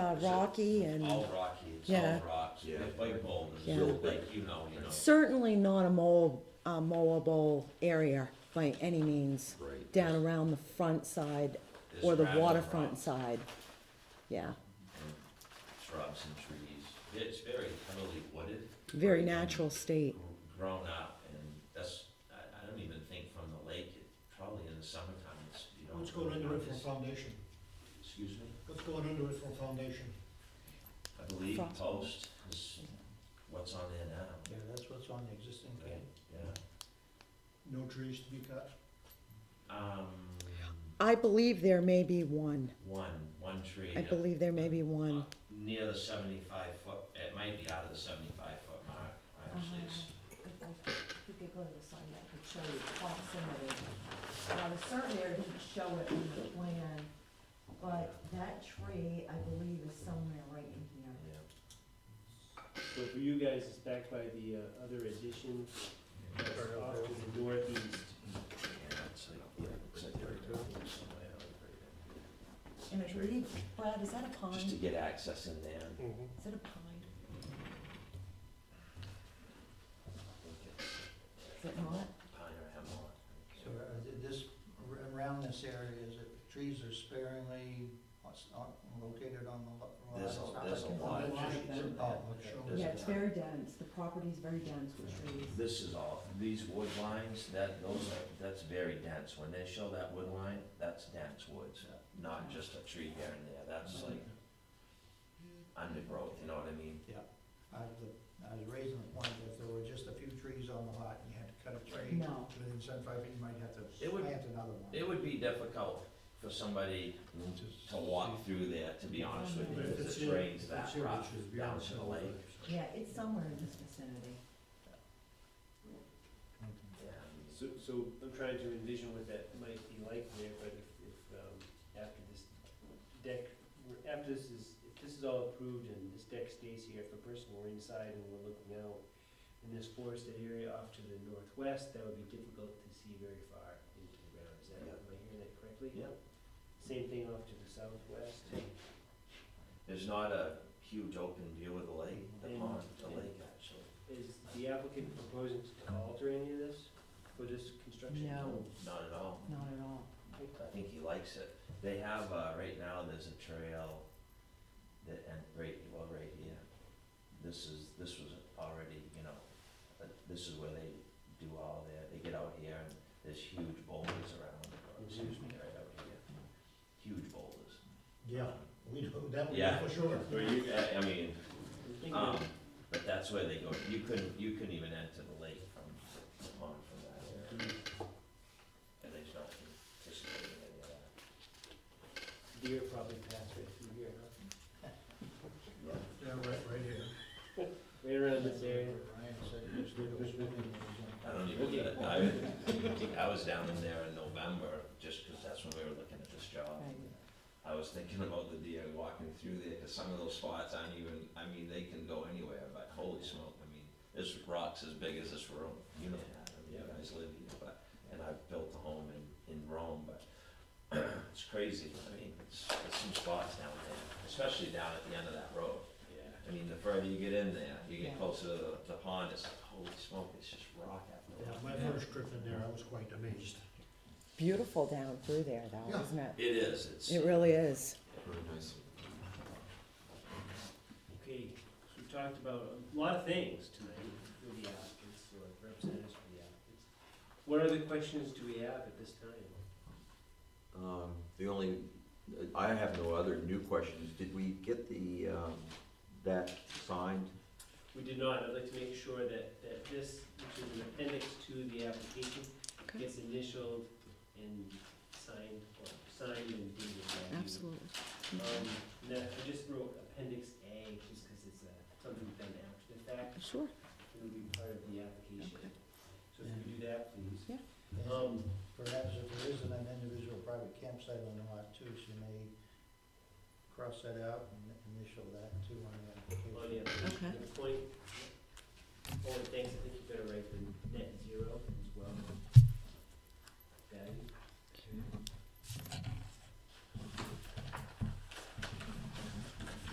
Uh, rocky and All rocky, it's Yeah. all rocks, Yeah. it's like boulders, Yeah. like, you know, you know. certainly not a mow, a mowable area by any means. Right. Down around the front side There's or the gravel waterfront rocks side. Yeah, and Shrubs and trees, it's very heavily wooded. very right, and natural state. gr- Grown up, and that's, I, I don't even think from the lake, it, probably in the summertime, it's, you don't. What's going really under it for notice. foundation? Excuse me, What's going under it for foundation? I believe Frost. post is what's on there now, Yeah, that's what's on the existing right, yeah. No trees to be cut? Um, I believe there may be one. one, one tree. I yeah. believe there may be one. Near the seventy-five foot, it might be out of the seventy-five foot mark, actually, it's, You could go to the sign that could show you proximity. Now, the certain area didn't show it in the plan, but that tree, I believe, is somewhere right in here. yeah. So for you guys, it's backed by the uh, other addition, that's off to the northeast. And I believe, Brad, is that a pine? Just to Is get access in there. I it a pine? think it's Is it not? Pine or hemlock. So uh, th- this, ar- around this area, is it, trees are sparingly, what's not located on the lo- lot? There's a- It's not there's like a it's lot of lot. trees. Oh, okay. There's Yeah, a it's pine. very dense, the property's very dense with trees. This is all, these wood lines, that, those are, that's very dense. When they show that wood line, that's dense woods, not just a tree here and there. That's like Uh-huh. undergrowth, you know what I mean? I was, I was raising the point that if there were just a few trees on the lot and you had to cut a tree No. within seventy-five feet, you might have to It would- plant another one. It would be difficult for somebody to walk through there, to be honest with you, because it drains that rock down to the lake. Yeah, it's somewhere in this vicinity. Yeah, I mean, So, so I'm trying to envision what that might be like there, but if, if, um, after this deck, after this is, if this is all approved and this deck stays here, if a person were inside and were looking out in this forested area off to the northwest, that would be difficult to see very far into the ground, is that, am I hearing that correctly? Yeah. Same thing off to the southwest? There's not a huge open view of the lake, the pond, the lake actually. Is the applicant proposing to alter any of this for this construction? No. Not at all. Not at all. I think he likes it. They have, uh, right now, there's a trail that, and right, well, right here. This is, this was already, you know, uh, this is where they do all their, they get out here and there's huge boulders around, or excuse me, right out here. Huge boulders. Yeah, we know, that we know Yeah. for sure. Where you, I, I mean, I'm thinking um, but that's where they go. You couldn't, you couldn't even enter the lake from, the pond from that area. And there's not anticipating any of that. Deer probably pass right through here, huh? Yeah, right, right here. Right around this area. Ryan said he was gonna go swimming when he was I on- don't even, get it. I, I was down in there in November, just 'cause that's when we were looking at this job. I was thinking about the deer walking through there, 'cause some of those spots aren't even, I mean, they can go anywhere, but holy smoke, I mean, this rock's as big as this room, you know that, I mean, you guys live here, but, and I've built a home in, in Rome, but it's crazy, I mean, it's, there's some spots down there, especially down at the end of that road. Yeah. I mean, the further you get in there, you Yeah. get closer to the, the pond, it's like, holy smoke, it's just rock after Yeah, rock. my first trip in there, I was quite amazed. Beautiful down through there though, Yeah. isn't it? It is, it's. It really is. Very nice. Okay, so we've talked about a lot of things tonight with the applicants, or representatives for the applicants. What other questions do we have at this time? Um, the only, I have no other new questions. Did we get the, um, that signed? We did not, I'd like to make sure that, that this, which is an appendix to the application, Okay. gets initialed and signed, or signed and dated by you. Um, no, I just wrote appendix A, just because it's uh, something done after the fact, Sure. it'll be part of the application. Okay. So if you do that, please. And Um, Perhaps if there isn't an individual private campsite on the lot too, she may cross that out and initial that too on the Oh, yeah, application. Okay. good point. Oh, and thanks, I think you better write the net zero as well. Value.